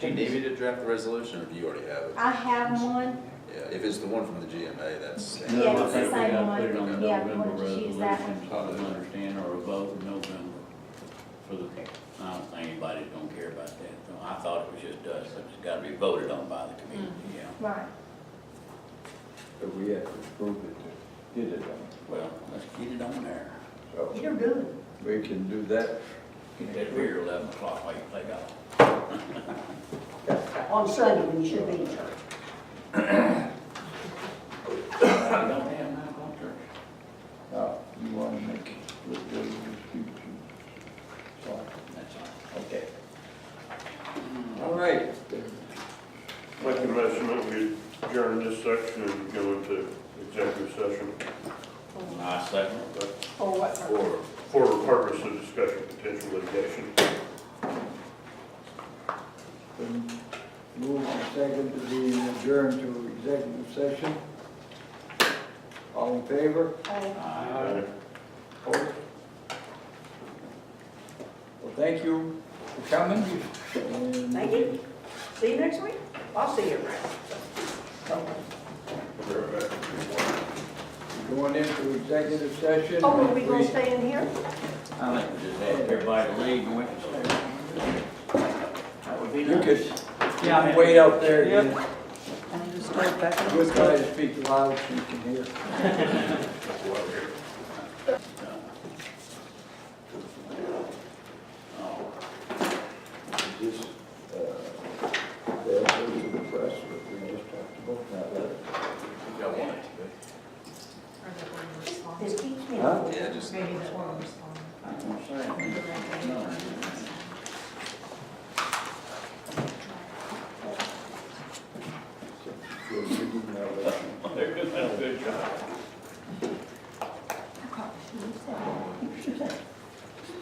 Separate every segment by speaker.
Speaker 1: Do you need me to draft the resolution, or do you already have it?
Speaker 2: I have one,
Speaker 1: Yeah, if it's the one from the GMA, that's,
Speaker 2: Yeah, it's the
Speaker 1: okay.
Speaker 2: same one.
Speaker 3: We gotta put it on the
Speaker 2: Yeah, we
Speaker 3: November
Speaker 2: wanted to use that
Speaker 3: resolution, so they understand, or a vote in November for the, I don't think anybody's gonna care about that. though. I thought it was just us, but it's gotta be voted on by the committee, yeah.
Speaker 2: right,
Speaker 4: But we have to prove it to get it on.
Speaker 3: Well, let's get it on there.
Speaker 4: So
Speaker 2: you're good.
Speaker 4: we can do that.
Speaker 3: Get that beer eleven o'clock while you play golf.
Speaker 5: on Sunday when you should be in church.
Speaker 3: We don't have nine o'clock church.
Speaker 2: Oh,
Speaker 4: Now, you want to make it look good in the future. So,
Speaker 3: That's all.
Speaker 4: okay. All right.
Speaker 6: Make a motion that we adjourn this section and go into executive session
Speaker 3: I second it.
Speaker 2: For what purpose?
Speaker 1: or,
Speaker 6: for the purpose of discussing potential litigation.
Speaker 4: Then Move on second to be adjourned to executive session. All in favor?
Speaker 6: Uh,
Speaker 4: Opposed? Well, thank you for coming. and-
Speaker 5: Thank you. See you next week. I'll see you around.
Speaker 4: Going into executive session.
Speaker 5: Oh, are we gonna stay in here?
Speaker 3: I think we just have everybody to leave and went to sleep. That would be
Speaker 4: You
Speaker 3: nice.
Speaker 4: could, you
Speaker 3: Yeah, I
Speaker 4: can
Speaker 3: mean-
Speaker 4: wait out there.
Speaker 3: Yep.
Speaker 4: yeah. We'll try to speak loud so you can hear.
Speaker 3: Oh.
Speaker 4: Just, uh, they'll go to the press, but we just talked about that.
Speaker 1: you got one, right?
Speaker 5: Just keep me.
Speaker 4: Huh?
Speaker 1: yeah, just.
Speaker 7: Maybe that one respond.
Speaker 3: I'm gonna say it. No.
Speaker 4: So you can now let them-
Speaker 3: They're doing a good job.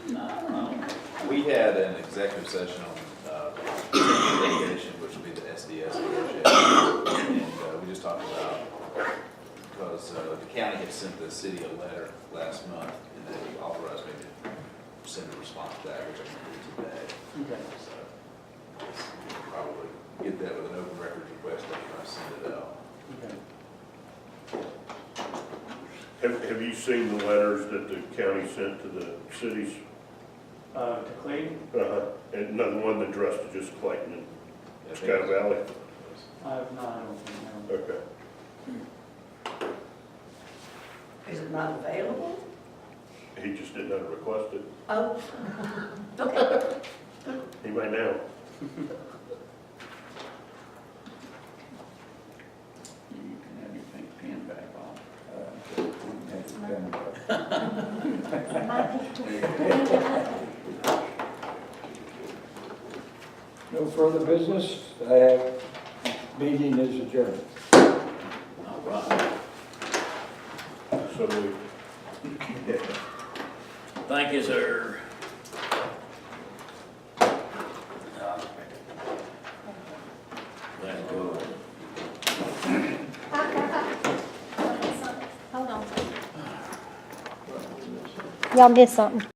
Speaker 3: No,
Speaker 1: We had an executive session on uh, litigation, which would be the SDS leadership. And uh, we just talked about, because uh, the county had sent the city a letter last month, and they authorized me to send a response to that, which I can do today.
Speaker 3: no.
Speaker 1: So we'll Probably get that with an open records request after I send it out.
Speaker 6: Have, have you seen the letters that the county sent to the cities?
Speaker 8: Uh, to Clayton,
Speaker 6: Uh-huh. And another one that addressed to just Clayton and
Speaker 1: Yeah, I think
Speaker 6: Scott Valley?
Speaker 8: I have not, I don't think, no.
Speaker 6: Okay.
Speaker 5: Is it not available?
Speaker 6: He just didn't have to request it.
Speaker 5: Oh,
Speaker 6: He may now.
Speaker 3: You can have your pink pen back off.
Speaker 4: uh, that's kind of- No further business, I have, meeting is adjourned.
Speaker 3: All right.
Speaker 6: So we
Speaker 3: Thank you, sir. Let's go.
Speaker 2: Y'all missed something.